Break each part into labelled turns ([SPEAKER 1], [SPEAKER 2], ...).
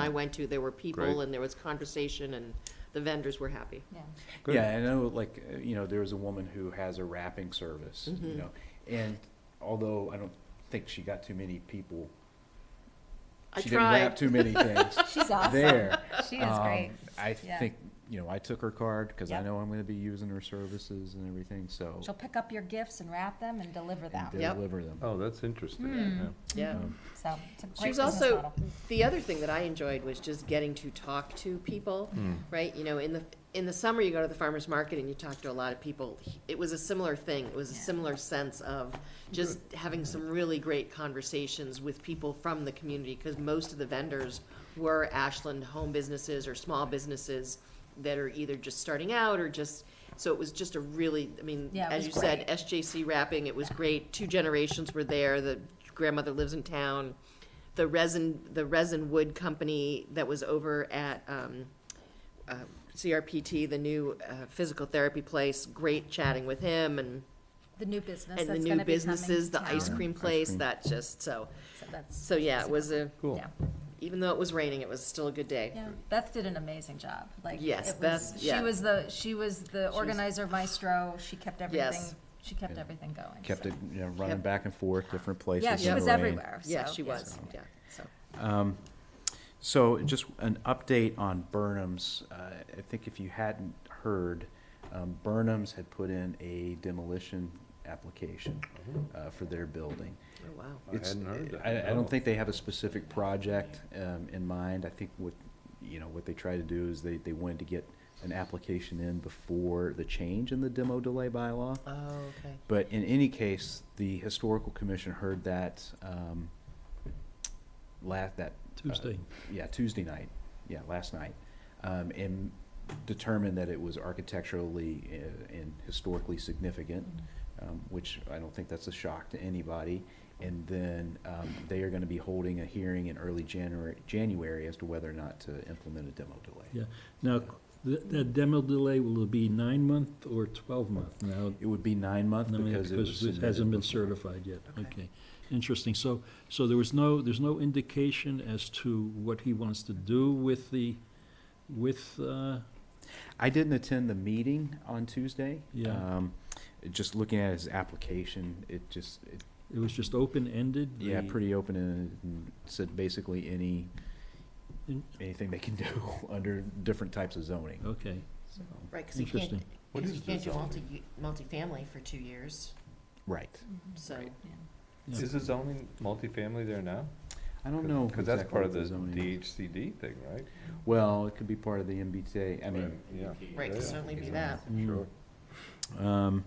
[SPEAKER 1] I went to, there were people
[SPEAKER 2] Great.
[SPEAKER 1] and there was conversation and the vendors were happy.
[SPEAKER 3] Yeah.
[SPEAKER 2] Good.
[SPEAKER 4] Yeah, I know, like, uh, you know, there was a woman who has a wrapping service, you
[SPEAKER 1] Mhm.
[SPEAKER 4] know, and although I don't think she got too many people,
[SPEAKER 1] I
[SPEAKER 4] she didn't
[SPEAKER 1] tried.
[SPEAKER 4] wrap too many things
[SPEAKER 3] She's awesome.
[SPEAKER 4] there.
[SPEAKER 3] She is
[SPEAKER 4] um,
[SPEAKER 3] great.
[SPEAKER 4] I
[SPEAKER 3] Yeah.
[SPEAKER 4] think, you know, I took her card because I
[SPEAKER 3] Yep.
[SPEAKER 4] know I'm going to be using her services and everything, so
[SPEAKER 3] She'll pick up your gifts and wrap them and deliver them.
[SPEAKER 4] and
[SPEAKER 1] Yep.
[SPEAKER 4] deliver them.
[SPEAKER 2] Oh, that's interesting.
[SPEAKER 3] Hmm.
[SPEAKER 2] Yeah.
[SPEAKER 1] Yeah.
[SPEAKER 4] Um,
[SPEAKER 3] So it's a great
[SPEAKER 1] She was
[SPEAKER 3] business
[SPEAKER 1] also,
[SPEAKER 3] model. Mm.
[SPEAKER 1] the other thing that I enjoyed was just getting to talk to people,
[SPEAKER 4] Hmm.
[SPEAKER 1] right? You know, in the, in the summer, you go to the farmer's market and you talk to a lot of people. It was a similar thing. It was a
[SPEAKER 3] Yeah.
[SPEAKER 1] similar sense of just having some really great conversations with people from the community, because most of the vendors were Ashland home businesses or small businesses that are either just starting out or just, so it was just a really, I mean,
[SPEAKER 3] Yeah, it
[SPEAKER 1] as
[SPEAKER 3] was
[SPEAKER 1] you said,
[SPEAKER 3] great.
[SPEAKER 1] SJC wrapping, it was great. Two generations were there. The grandmother lives in town. The resin, the resin wood company that was over at um, uh, CRPT, the new uh, physical therapy place, great chatting with him and,
[SPEAKER 3] The new business
[SPEAKER 1] and the
[SPEAKER 3] that's
[SPEAKER 1] new
[SPEAKER 3] gonna be coming
[SPEAKER 1] businesses,
[SPEAKER 3] to
[SPEAKER 1] the ice
[SPEAKER 3] town.
[SPEAKER 1] cream
[SPEAKER 4] Ice
[SPEAKER 1] place,
[SPEAKER 4] cream.
[SPEAKER 1] that just, so.
[SPEAKER 3] So that's.
[SPEAKER 1] So, yeah, it
[SPEAKER 3] super
[SPEAKER 1] was a,
[SPEAKER 2] Cool.
[SPEAKER 3] Yeah.
[SPEAKER 1] even though it was raining, it was still a good day.
[SPEAKER 3] Yeah, Beth did an amazing job. Like
[SPEAKER 1] Yes,
[SPEAKER 3] it was,
[SPEAKER 1] Beth- yeah.
[SPEAKER 3] She was the she was the organizer maestro. She kept everything.
[SPEAKER 1] Yes.
[SPEAKER 3] She kept
[SPEAKER 4] Yeah.
[SPEAKER 3] everything going.
[SPEAKER 4] Kept
[SPEAKER 3] so.
[SPEAKER 4] it, you know, running
[SPEAKER 1] Yep.
[SPEAKER 4] back and forth, different places.
[SPEAKER 3] Yeah, she
[SPEAKER 4] in
[SPEAKER 3] was
[SPEAKER 4] Lorraine.
[SPEAKER 3] everywhere.
[SPEAKER 1] Yeah,
[SPEAKER 3] so-
[SPEAKER 1] she was, yeah, so.
[SPEAKER 4] Um, So just an update on Burnham's. Uh, I think if you hadn't heard, um, Burnham's had put in a demolition application uh, for their building.
[SPEAKER 1] Oh, wow.
[SPEAKER 2] Mm-hmm. I
[SPEAKER 4] It's-
[SPEAKER 2] hadn't heard that,
[SPEAKER 4] I, I
[SPEAKER 2] no.
[SPEAKER 4] don't think they have a specific project um, in mind. I think what, you know, what they try to do is they, they wanted to get an application in before the change in the demo delay bylaw.
[SPEAKER 1] Oh, okay.
[SPEAKER 4] But in any case, the historical commission heard that, um, last, that. uh,
[SPEAKER 5] Tuesday.
[SPEAKER 4] Yeah, Tuesday night, yeah, last night, um, and determined that it was architecturally uh, and historically significant,
[SPEAKER 5] Mm-hmm.
[SPEAKER 4] um, which I don't think that's a shock to anybody. And then, um, they are gonna be holding a hearing in early January, January as to whether or not to implement a demo delay.
[SPEAKER 5] Yeah. Now, th- that demo delay will it be nine month or twelve month now?
[SPEAKER 4] It would be nine months
[SPEAKER 5] I mean,
[SPEAKER 4] because it was
[SPEAKER 5] Because it hasn't been
[SPEAKER 4] submitted
[SPEAKER 5] certified yet.
[SPEAKER 1] Okay.
[SPEAKER 5] Okay. Interesting. So, so there was no, there's no indication as to what he wants to do with the, with, uh,
[SPEAKER 4] I didn't attend the meeting on Tuesday.
[SPEAKER 5] Yeah.
[SPEAKER 4] Um, just looking at his application, it just, it,
[SPEAKER 5] it was just open-ended?
[SPEAKER 4] yeah,
[SPEAKER 5] the-
[SPEAKER 4] pretty open and and said basically any,
[SPEAKER 5] In-
[SPEAKER 4] anything they can do under different types of zoning.
[SPEAKER 5] Okay.
[SPEAKER 4] so.
[SPEAKER 1] Right, because you can't,
[SPEAKER 5] Interesting.
[SPEAKER 2] What
[SPEAKER 1] because
[SPEAKER 2] is
[SPEAKER 1] you can't do
[SPEAKER 2] the
[SPEAKER 1] multi, multifamily for two years,
[SPEAKER 4] Right.
[SPEAKER 3] Mm-hmm.
[SPEAKER 1] so.
[SPEAKER 5] Yeah.
[SPEAKER 2] Is the zoning multifamily there now?
[SPEAKER 4] I don't know.
[SPEAKER 2] Because that's part of the
[SPEAKER 4] exactly what zoning is.
[SPEAKER 2] DHCD thing, right?
[SPEAKER 4] Well, it could be part of the MBTA, I mean,
[SPEAKER 2] Right, Yeah.
[SPEAKER 1] Right, could
[SPEAKER 2] Yeah,
[SPEAKER 1] certainly be
[SPEAKER 2] yeah,
[SPEAKER 1] that.
[SPEAKER 5] Mm,
[SPEAKER 2] Sure.
[SPEAKER 4] Um,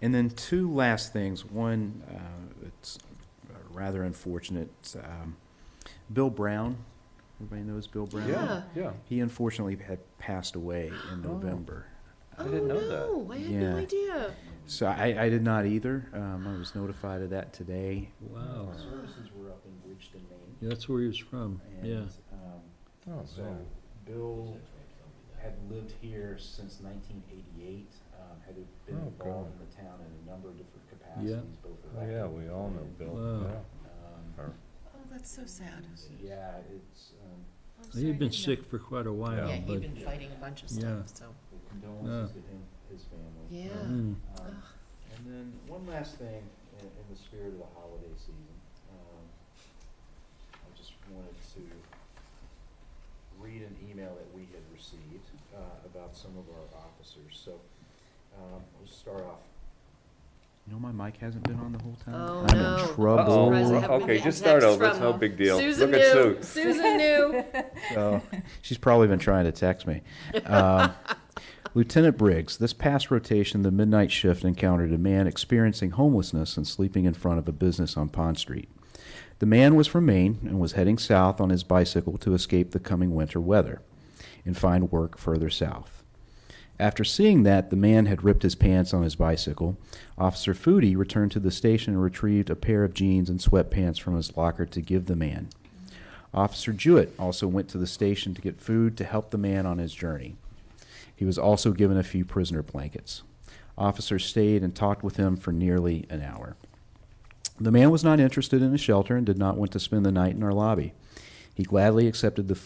[SPEAKER 4] And then two last things. One, uh, it's rather unfortunate. um, Bill Brown, everybody knows Bill Brown?
[SPEAKER 2] Yeah, yeah.
[SPEAKER 4] He unfortunately had passed away in
[SPEAKER 2] Oh.
[SPEAKER 4] November.
[SPEAKER 2] I didn't know that.
[SPEAKER 1] Oh, no, I had no
[SPEAKER 4] Yeah.
[SPEAKER 1] idea.
[SPEAKER 4] So I, I did not either. Um, I was notified of that today.
[SPEAKER 5] Wow.
[SPEAKER 4] Services were up in Bridgeton, Maine. um,
[SPEAKER 5] Yeah, That's where he was from. Yeah.
[SPEAKER 2] Oh,
[SPEAKER 4] So
[SPEAKER 2] man.
[SPEAKER 4] Bill had lived here since nineteen eighty-eight, um, had been
[SPEAKER 2] Oh,
[SPEAKER 4] involved
[SPEAKER 2] God.
[SPEAKER 4] in the town in a number of different
[SPEAKER 5] Yeah.
[SPEAKER 4] capacities, both
[SPEAKER 2] Oh,
[SPEAKER 4] elected.
[SPEAKER 2] yeah, we all know Bill,
[SPEAKER 5] Wow.
[SPEAKER 2] yeah.
[SPEAKER 4] um,
[SPEAKER 2] Or-
[SPEAKER 1] Oh, that's so sad.
[SPEAKER 4] Yeah, it's, um,
[SPEAKER 1] I'm sorry, I
[SPEAKER 5] He'd been
[SPEAKER 1] didn't know.
[SPEAKER 5] sick for quite a
[SPEAKER 2] Yeah,
[SPEAKER 5] while,
[SPEAKER 1] Yeah,
[SPEAKER 5] but.
[SPEAKER 1] he'd been fighting a bunch of
[SPEAKER 5] Yeah.
[SPEAKER 1] stuff, so,
[SPEAKER 4] the condolences to him, his family.
[SPEAKER 1] yeah.
[SPEAKER 5] Hmm.
[SPEAKER 4] Um, And then one last thing, in, in the spirit of the holiday season, um, I just wanted to read an email that we had received, uh, about some of our officers, so, um, we'll start off. You know, my mic hasn't been on the whole time.
[SPEAKER 1] Oh,
[SPEAKER 4] I'm
[SPEAKER 1] no.
[SPEAKER 4] in trouble.
[SPEAKER 1] Surprised I haven't been
[SPEAKER 2] Okay,
[SPEAKER 1] getting
[SPEAKER 2] just start
[SPEAKER 1] texts
[SPEAKER 2] over, it's
[SPEAKER 1] from
[SPEAKER 2] no big deal.
[SPEAKER 1] Susan
[SPEAKER 2] Look at
[SPEAKER 1] knew,
[SPEAKER 2] Sue.
[SPEAKER 1] Susan knew.
[SPEAKER 4] So, she's probably been trying to text me. Um, Lieutenant Briggs, this past rotation, the midnight shift encountered a man experiencing homelessness and sleeping in front of a business on Pond Street. The man was from Maine and was heading south on his bicycle to escape the coming winter weather and find work further south. After seeing that the man had ripped his pants on his bicycle, Officer Foodie returned to the station and retrieved a pair of jeans and sweatpants from his locker to give the man. Officer Jewett also went to the station to get food to help the man on his journey. He was also given a few prisoner blankets. Officers stayed and talked with him for nearly an hour. The man was not interested in a shelter and did not want to spend the night in our lobby. He gladly accepted the food.